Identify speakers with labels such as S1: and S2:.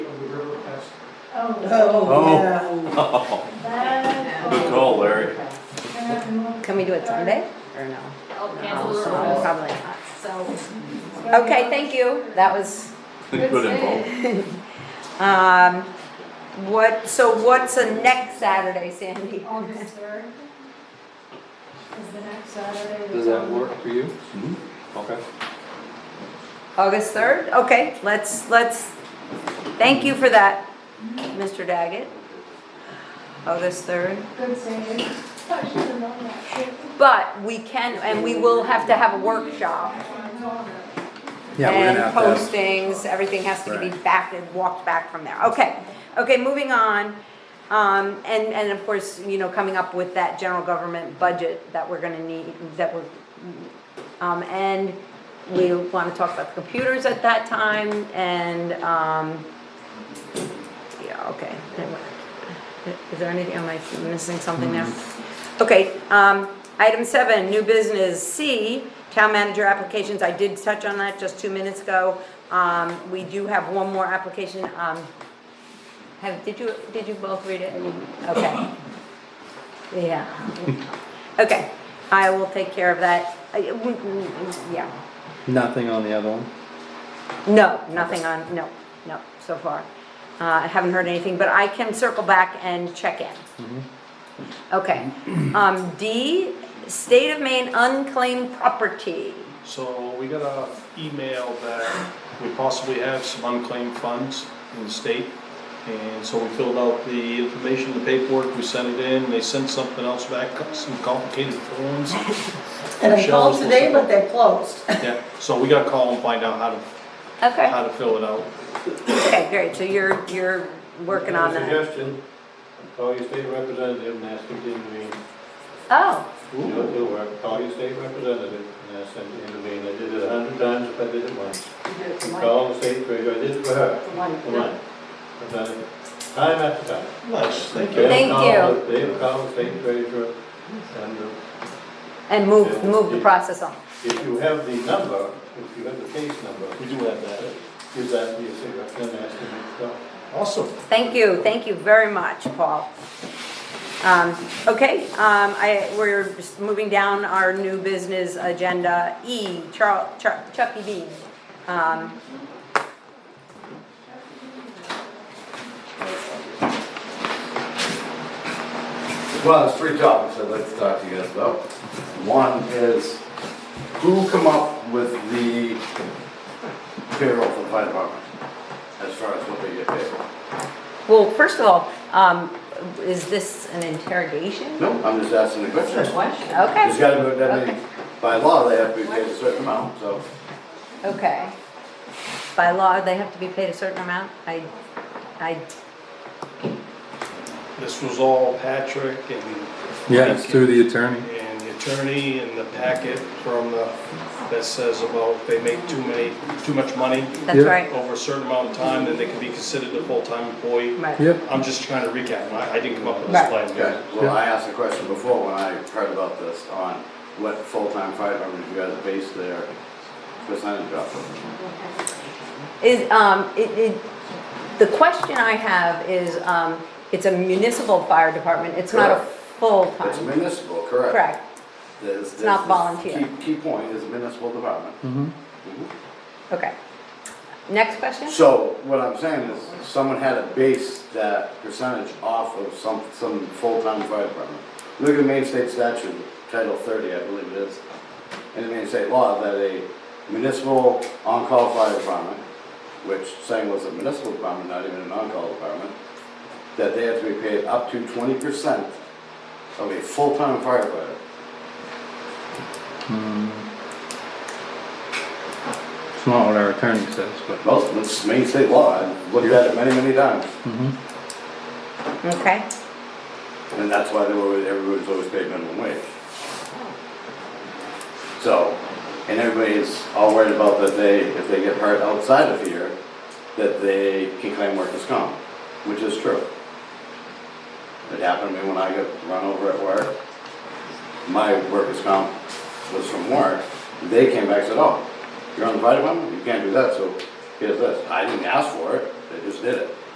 S1: Oh,
S2: yeah.
S3: Good
S4: Good
S3: call, Larry.
S5: Can we do it Sunday or no?
S4: Oh, cancel the
S5: Oh,
S4: rules.
S5: Probably not.
S4: So,
S5: Okay, thank you. That was,
S3: Good info.
S5: um, what, so what's the next Saturday, Sandy?
S4: August third is the next Saturday.
S6: Does that work for you?
S3: Mhm.
S6: Okay.
S5: August 3rd? Okay, let's, let's, thank you for that, Mr. Daggett. August 3rd.
S4: Good saving. I should have known that.
S5: But we can, and we will have to have a workshop.
S1: yeah, we're gonna have to have-
S5: And postings, everything has to be
S1: Right.
S5: back and walked back from there. Okay, okay, moving on. Um, and, and of course, you know, coming up with that general government budget that we're gonna need, that we're, um, and we wanna talk about the computers at that time and, um, yeah, okay. Is there anything, am I missing something there? Okay, um, item seven, new business C, town manager applications, I did touch on that just two minutes ago. Um, we do have one more application, um, have, did you, did you both read it? Okay. Yeah. Okay, I will take care of that. I- Yeah,
S6: Nothing on the other one?
S5: no, nothing on, no, no, so far. Uh, I haven't heard anything, but I can circle back and check in. Okay, um, D, state of Maine unclaimed property.
S7: So we got a email that we possibly have some unclaimed funds in the state. And so we filled out the information, the paperwork, we sent it in, they sent something else back, some complicated forms.
S2: And I
S7: Michelle's
S2: called
S7: was-
S2: today, but they closed.
S7: Yeah, so we gotta call and find out how to,
S5: Okay,
S7: how to fill it out.
S5: okay, great, so you're, you're working on that.
S6: Suggestion, call your state representative and ask him to intervene.
S5: Oh,
S6: It'll, it'll work. Call your state representative and ask them to intervene. I did it a hundred times if I did it once. You call the state treasurer, I did it for her, for mine. I've done it time after time.
S7: Nice, thank you.
S6: They'll
S5: Thank
S6: call-
S5: you.
S6: They'll call the state treasurer and uh,
S5: and move, move the process on.
S6: if you have the number, if you have the case number,
S7: We do have that.
S6: give that to your state representative and ask him to stop.
S7: Awesome.
S5: Thank you, thank you very much, Paul. Um, okay, um, I, we're just moving down our new business agenda, E, Charl, Chuck, Chuck E. Bean. Um,
S8: Well, there's three topics I'd like to talk to you guys about. One is, who come up with the payroll for the fire department? As far as what they get paid?
S5: well, first of all, um, is this an interrogation?
S8: No, I'm just asking the question. There's
S5: Okay,
S8: gotta be, that many- by law, they have to be paid a certain amount, so.
S5: okay. By law, they have to be paid a certain amount? I, I,
S7: This was all Patrick and,
S2: Yeah, it's through the attorney.
S7: and the attorney and the packet from the, that says about if they make too many, too much money,
S5: that's
S2: Yeah.
S5: right,
S7: over a certain amount of time, then they can be considered a full-time employee.
S5: right.
S2: Yep,
S7: I'm just trying to recap, I, I didn't come up with this
S5: Right.
S7: plan.
S8: Okay, well, I asked a question before when I heard about this on what full-time fire department you guys base their percentage off of.
S5: Is, um, it, it, the question I have is, um, it's a municipal fire department, it's not a
S8: Correct. It's
S5: full-time,
S8: municipal, correct?
S5: correct?
S8: There's- there's
S5: not
S8: this
S5: volunteer.
S8: key- Key point is municipal department. Mhm.
S5: Okay. Next question?
S8: So what I'm saying is, someone had to base that percentage off of some, some full-time fire department. Look at the Maine State statute, Title thirty, I believe it is, in the Maine State law, that a municipal on-call fire department, which saying was a municipal department, not even an on-call department, that they have to be paid up to twenty percent of a full-time firefighter.
S2: it's not what our attorney says, but.
S8: Well, it's Maine State law, I've looked at it many, many times,
S5: Okay,
S8: and that's why they were, everybody's always paid minimum wage. So, and everybody's all worried about that they, if they get hurt outside of here, that they can claim workers' comp, which is true. It happened to me when I got run over at work. My workers' comp was from work. They came back and said, oh, you're on the fire department? You can't do that, so here's this. I didn't ask for it, they just did it.